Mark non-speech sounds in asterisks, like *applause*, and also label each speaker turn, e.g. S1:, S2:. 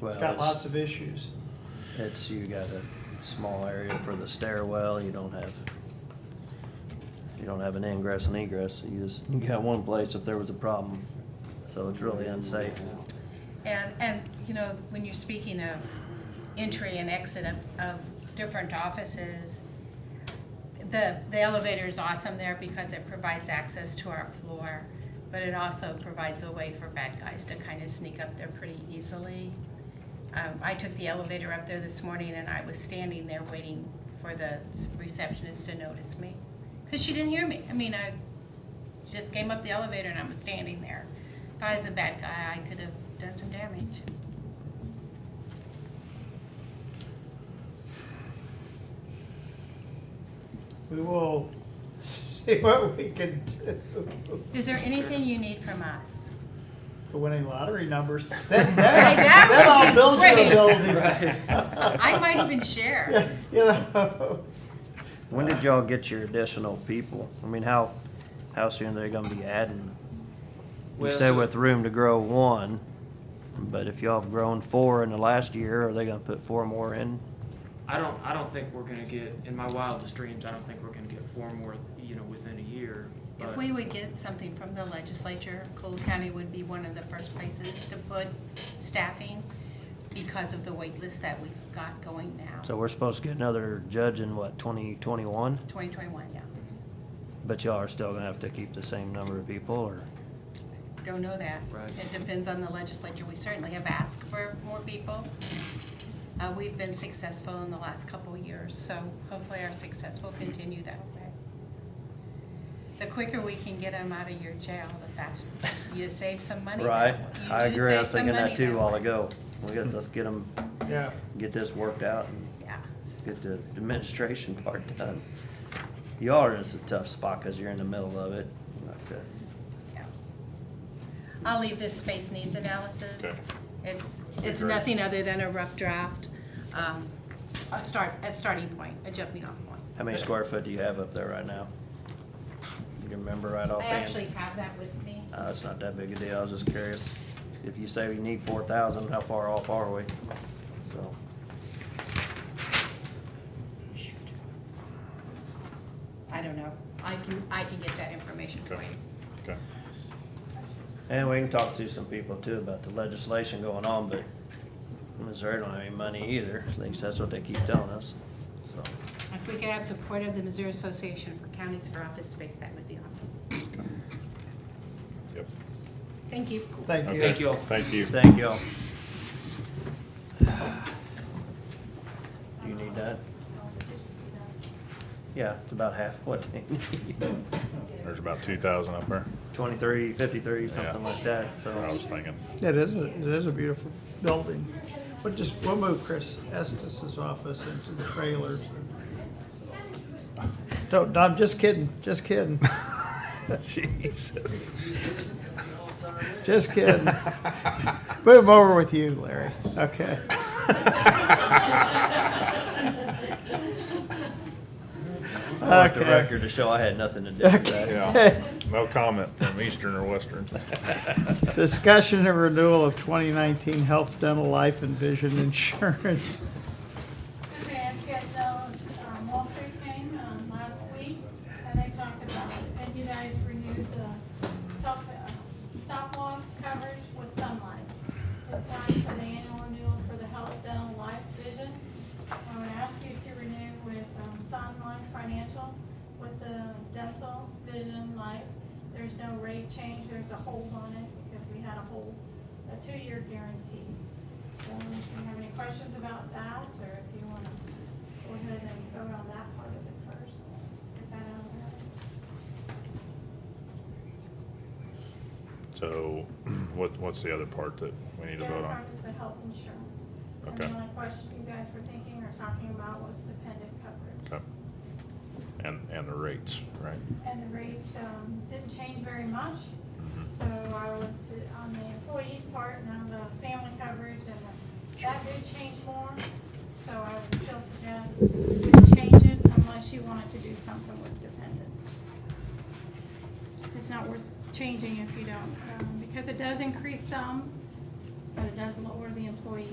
S1: Well,
S2: It's got
S1: it's-
S2: lots of issues.
S1: It's, you got a small area for the stairwell, you don't have, you don't have an ingress and egress, you just, you got one place if there was a problem. So it's really unsafe.
S3: And, and, you know, when you're speaking of entry and exit of, of different offices, the, the elevator is awesome there because it provides access to our floor, but it also provides a way for bad guys to kind of sneak up there pretty easily. Um, I took the elevator up there this morning and I was standing there waiting for the receptionist to notice me. Cause she didn't hear me. I mean, I just came up the elevator and I was standing there. If I was a bad guy, I could have done some damage.
S2: We will *laughs* see what we can do.
S3: Is there anything you need from us?
S2: The winning lottery numbers. That, that,
S3: *laughs* Right, that
S2: that
S3: would
S2: all
S3: be
S2: builds your
S3: great.
S2: ability.
S3: I might even share.
S2: *laughs* You know,
S1: When did y'all get your additional people? I mean, how, how soon they're gonna be adding? You
S4: Well,
S1: said
S4: so-
S1: with room to grow one, but if y'all have grown four in the last year, are they gonna put four more in?
S4: I don't, I don't think we're gonna get, in my wildest dreams, I don't think we're gonna get four more, you know, within a year.
S3: If
S4: but-
S3: we would get something from the legislature, Cole County would be one of the first places to put staffing because of the wait list that we've got going now.
S1: So we're supposed to get another judge in what, twenty twenty-one?
S3: Twenty twenty-one, yeah.
S1: But y'all are still gonna have to keep the same number of people, or?
S3: Don't know that.
S4: Right.
S3: It depends on the legislature. We certainly have asked for more people. Uh, we've been successful in the last couple of years, so hopefully our success will continue that way. The quicker we can get them out of your jail, the faster. You save some money. that
S1: Right,
S3: way.
S1: I
S3: You do
S1: agree, I
S3: save
S1: was
S3: some
S1: thinking that
S3: money
S1: too a while
S3: way.
S1: ago. We got, let's get them,
S2: Yeah,
S1: get this worked out and
S3: Yeah, so-
S1: get the administration *laughs* part done. You are in a tough spot, cause you're in the middle of it. Like that.
S3: yeah. I'll leave this space needs analysis. It's, it's
S5: great.
S3: nothing other than a rough draft, um, a start, a starting point, a jumping off point.
S1: How many square foot do you have up there right now? You can remember right
S3: I
S1: offhand?
S3: actually have that with me.
S1: Uh, it's not that big a deal, I was just curious. If you say we need four thousand, how far off are we? So,
S3: I don't know. I can, I can get that information for
S5: Okay,
S3: you.
S5: okay.
S1: and we can talk to some people too about the legislation going on, but Missouri don't have any money either, at least that's what they keep telling us, so.
S3: If we could have support of the Missouri Association for Counties for Office Space, that would be awesome.
S5: Yep.
S3: Thank you.
S2: Oh, thank you.
S4: Thank you all.
S5: Thank you.
S1: Thank y'all. Do you need that? Yeah, it's about half what they need, *laughs*
S5: There's about two thousand up there.
S1: twenty-three, fifty-three, something
S5: Yeah.
S1: like that, so.
S5: I was thinking.
S2: It is, a- it is a beautiful building. But just, we'll move Chris Estes's office into the trailers. Don't, no, I'm just kidding, just kidding,
S5: Jesus.
S2: just kidding. Move over with you, Larry.
S1: *laughs*
S2: Okay.
S1: I want the
S2: Okay.
S1: record to show I had nothing to do with that.
S5: Yeah. No comment from Eastern or Western.
S2: *laughs* Discussion and renewal of 2019 health, dental, life, and vision insurance.
S6: Okay, as you guys know, um, Wall Street came, um, last week, and they talked about, it, and you guys renewed the self, uh, stop loss coverage with sunlight. It's time for the annual renewal for the health, dental, life, vision. I would ask you to renew with, um, Sunlight Financial with the dental, vision, life. There's no rate change, there's a hold on it, because we had a hold, a two-year guarantee. So if you have any questions about that, or if you want to go ahead and vote on that part of it first, get that out of the way.
S5: So *clears throat* what, what's the other part that we need to vote
S6: The other
S5: on?
S6: part is the health insurance. And
S5: Okay.
S6: the only question you guys were thinking or talking about was dependent coverage.
S5: Okay. And, and the rates, right?
S6: And the rates um, didn't change very much,
S5: Mm-hmm.
S6: so I would sit on the employees' part and on the family coverage, and the- that did change more. So I would still suggest we change it unless you wanted to do something with dependent. It's not worth changing if you don't, um, because it does increase some, but it does lower the employee